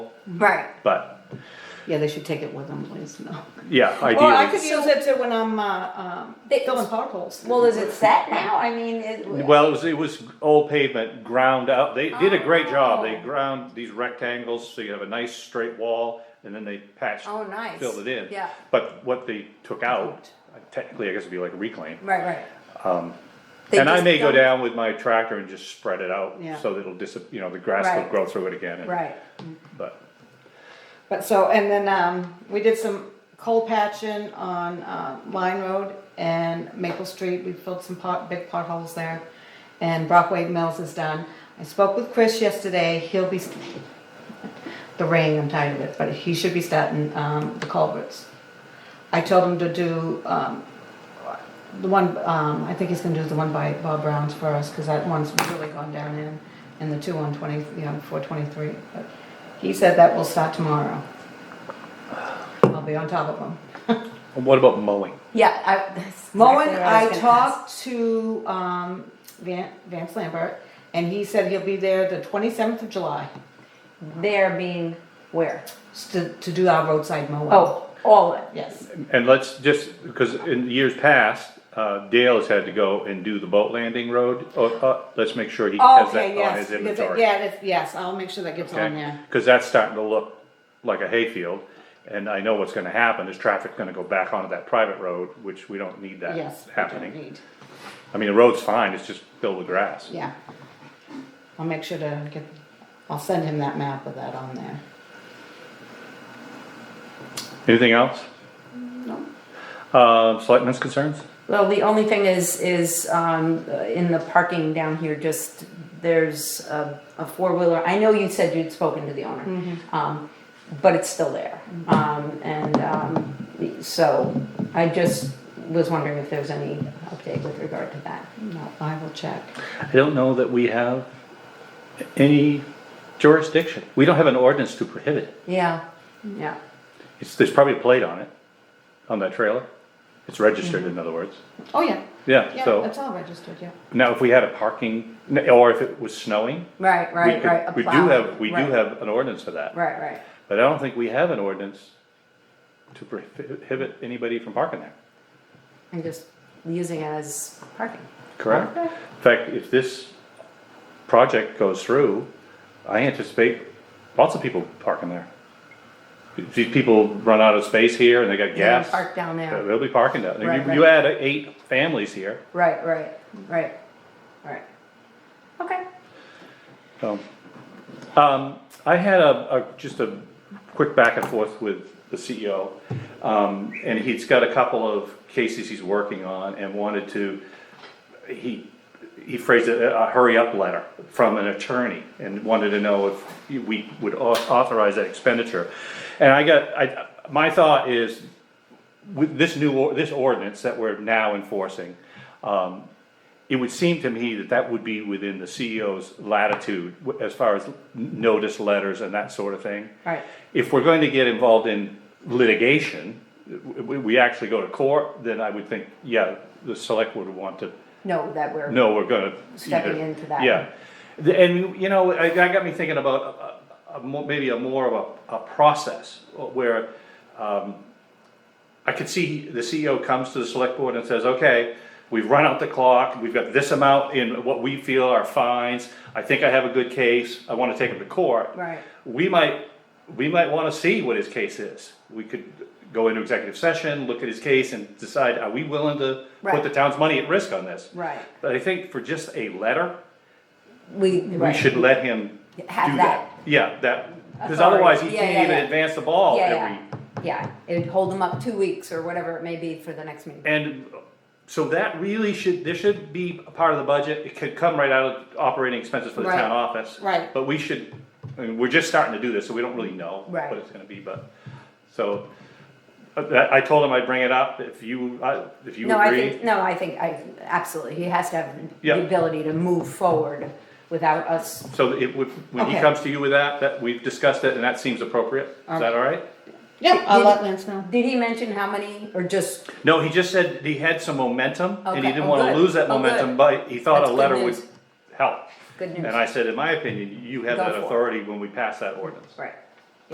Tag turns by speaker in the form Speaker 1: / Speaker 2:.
Speaker 1: Right.
Speaker 2: But
Speaker 1: Yeah, they should take it with them, please, no.
Speaker 2: yeah,
Speaker 3: Or I
Speaker 2: ideally.
Speaker 3: could use it to when I'm, uh, um,
Speaker 4: They-
Speaker 3: filling potholes.
Speaker 4: Well, is it set now? I mean, it.
Speaker 2: Well, it was, it was old pavement ground out. They did a great job.
Speaker 4: Oh.
Speaker 2: They ground these rectangles, so you have a nice straight wall, and then they patched.
Speaker 4: Oh, nice.
Speaker 2: Filled it in.
Speaker 4: Yeah.
Speaker 2: But what they took out, technically, I guess it'd be like reclaim.
Speaker 4: Right, right. They
Speaker 2: um, And I
Speaker 4: just
Speaker 2: may go
Speaker 4: don't-
Speaker 2: down with my tractor and just spread it out,
Speaker 3: Yeah.
Speaker 2: so that it'll dis, you know, the grass will
Speaker 4: Right.
Speaker 2: grow through it again. and-
Speaker 3: Right.
Speaker 2: But,
Speaker 3: But so, and then, um, we did some coal patching on, uh, Line Road and Maple Street, we filled some pot, big potholes there. And Brockway Mills is done, I spoke with Chris yesterday, he'll be, the rain, I'm tired of it, but he should be starting, um, the culverts. I told him to do, um, the one, um, I think he's gonna do the one by Bob Brown's first, cause that one's really gone down in, and the two on twenty, you know, four twenty-three, but he said that will start tomorrow. I'll be on top of him.
Speaker 2: and what about mowing?
Speaker 4: Yeah, I. that's
Speaker 3: Moen,
Speaker 4: exactly what I
Speaker 3: I
Speaker 4: was gonna ask.
Speaker 3: talked to, um, Van, Vance Lambert, and he said he'll be there the twenty-seventh of July
Speaker 4: There being where?
Speaker 3: s- to, to do our roadside mowing.
Speaker 4: Oh, all of it.
Speaker 3: Yes,
Speaker 2: And let's just, because in years past, uh, Dale has had to go and do the boat landing road, uh, uh, let's make sure he has
Speaker 3: Oh, okay,
Speaker 2: that on
Speaker 3: yes,
Speaker 2: his
Speaker 3: because it-
Speaker 2: inventory.
Speaker 3: yeah, that's- yes, I'll make sure that gets on there.
Speaker 2: Cause that's starting to look like a hayfield, and I know what's gonna happen, is traffic's gonna go back onto that private road, which we don't need that
Speaker 3: Yes, we don't
Speaker 2: happening.
Speaker 3: need-
Speaker 2: I mean, the road's fine, it's just filled with grass.
Speaker 3: Yeah. I'll make sure to get, I'll send him that map of that on there.
Speaker 2: Anything else? No. Uh, selectmen's concerns?
Speaker 4: Well, the only thing is, is, um, uh, in the parking down here, just, there's a, a four-wheeler, I know you said you'd spoken to the owner. Um, but it's still there, um, and, um, so, I just was wondering if there's any update with regard to that.
Speaker 3: No, I will check.
Speaker 2: I don't know that we have any jurisdiction. We don't have an ordinance to prohibit it.
Speaker 4: Yeah, yeah,
Speaker 2: It's, there's probably a plate on it, on that trailer. It's registered,
Speaker 4: Mm-hmm.
Speaker 2: in other words.
Speaker 3: Oh, yeah.
Speaker 2: Yeah,
Speaker 3: Yeah,
Speaker 2: so
Speaker 3: it's all registered, yeah.
Speaker 2: now if we had a parking, or if it was snowing,
Speaker 4: right,
Speaker 2: we
Speaker 4: right, right.
Speaker 2: could,
Speaker 4: a
Speaker 2: we do
Speaker 4: plow.
Speaker 2: have, we do
Speaker 4: Right,
Speaker 2: have an ordinance for that.
Speaker 4: Right, right,
Speaker 2: But I don't think we have an ordinance to prohibit anybody from parking there.
Speaker 4: I'm just using it as parking.
Speaker 2: Correct. In fact, if this project goes through, I anticipate lots of people parking there. If These people run out of space here and they got
Speaker 4: They're gonna
Speaker 2: gas.
Speaker 4: Park down there.
Speaker 2: They'll be parking down there.
Speaker 4: Right,
Speaker 2: You- You add eight families here,
Speaker 4: Right, right, right, right. Okay.
Speaker 2: so. Um, I had a, a, just a quick back and forth with the CEO. Um, and he's got a couple of cases he's working on and wanted to he, he phrased it, a hurry-up letter from an attorney, and wanted to know if we would au- authorize that expenditure. And I got, I, my thought is, with this new, or- this ordinance that we're now enforcing, um, it would seem to me that that would be within the CEO's latitude, w- as far as notice letters and that sort of thing.
Speaker 4: Right.
Speaker 2: If we're going to get involved in litigation, w- we, we actually go to court, then I would think, yeah, the select would want to
Speaker 4: No, that we're.
Speaker 2: no, we're gonna.
Speaker 4: Stepping into that.
Speaker 2: Yeah, The- and you know, I, that got me thinking about a, a, more, maybe a more of a, a process where, um, I could see the CEO comes to the select board and says, okay, we've run out the clock, we've got this amount in what we feel are fines, I think I have a good case, I wanna take him to court.
Speaker 4: Right.
Speaker 2: We might, we might wanna see what his case is, we could go into executive session, look at his case and decide, are we willing to put
Speaker 4: Right.
Speaker 2: the town's money at risk on this?
Speaker 4: Right.
Speaker 2: But I think for just a letter,
Speaker 4: We,
Speaker 2: we
Speaker 4: right.
Speaker 2: should let him do
Speaker 4: Have
Speaker 2: that. Yeah, that, because
Speaker 4: Authority.
Speaker 2: otherwise he
Speaker 4: Yeah,
Speaker 2: can't
Speaker 4: yeah,
Speaker 2: even
Speaker 4: yeah.
Speaker 2: advance the ball
Speaker 4: Yeah,
Speaker 2: every.
Speaker 4: yeah. Yeah, it'd hold them up two weeks or whatever it may be for the next meeting.
Speaker 2: And so that really should, there should be a part of the budget, it could come right out of operating expenses for the
Speaker 3: Right.
Speaker 2: town office.
Speaker 3: Right.
Speaker 2: But we should, I mean, we're just starting to do this, so we don't really know
Speaker 4: Right.
Speaker 2: what it's gonna be, but, so. uh, That, I told him I'd bring it up if you, I- if you
Speaker 4: No, I
Speaker 2: agree.
Speaker 4: think, no, I think, I, absolutely, he has to have
Speaker 2: Yeah.
Speaker 4: the ability to move forward without us,
Speaker 2: So it would, when he
Speaker 3: Okay.
Speaker 2: comes to you with that, that we've discussed it and that seems appropriate, is that all right?
Speaker 3: Yeah, I'll
Speaker 4: Did-
Speaker 3: let Lance know.
Speaker 4: did he mention how many, or just,
Speaker 2: No, he just said he had some momentum and he
Speaker 4: Okay,
Speaker 2: didn't
Speaker 4: oh,
Speaker 2: wanna
Speaker 4: good.
Speaker 2: lose that
Speaker 4: Oh, good.
Speaker 2: momentum, but he thought
Speaker 4: That's
Speaker 2: a
Speaker 4: good
Speaker 2: letter would
Speaker 4: news.
Speaker 2: help.
Speaker 4: Good news.
Speaker 2: And I said, in my opinion, you have
Speaker 4: Go
Speaker 2: that
Speaker 4: for it.
Speaker 2: authority when we pass that ordinance.
Speaker 4: right,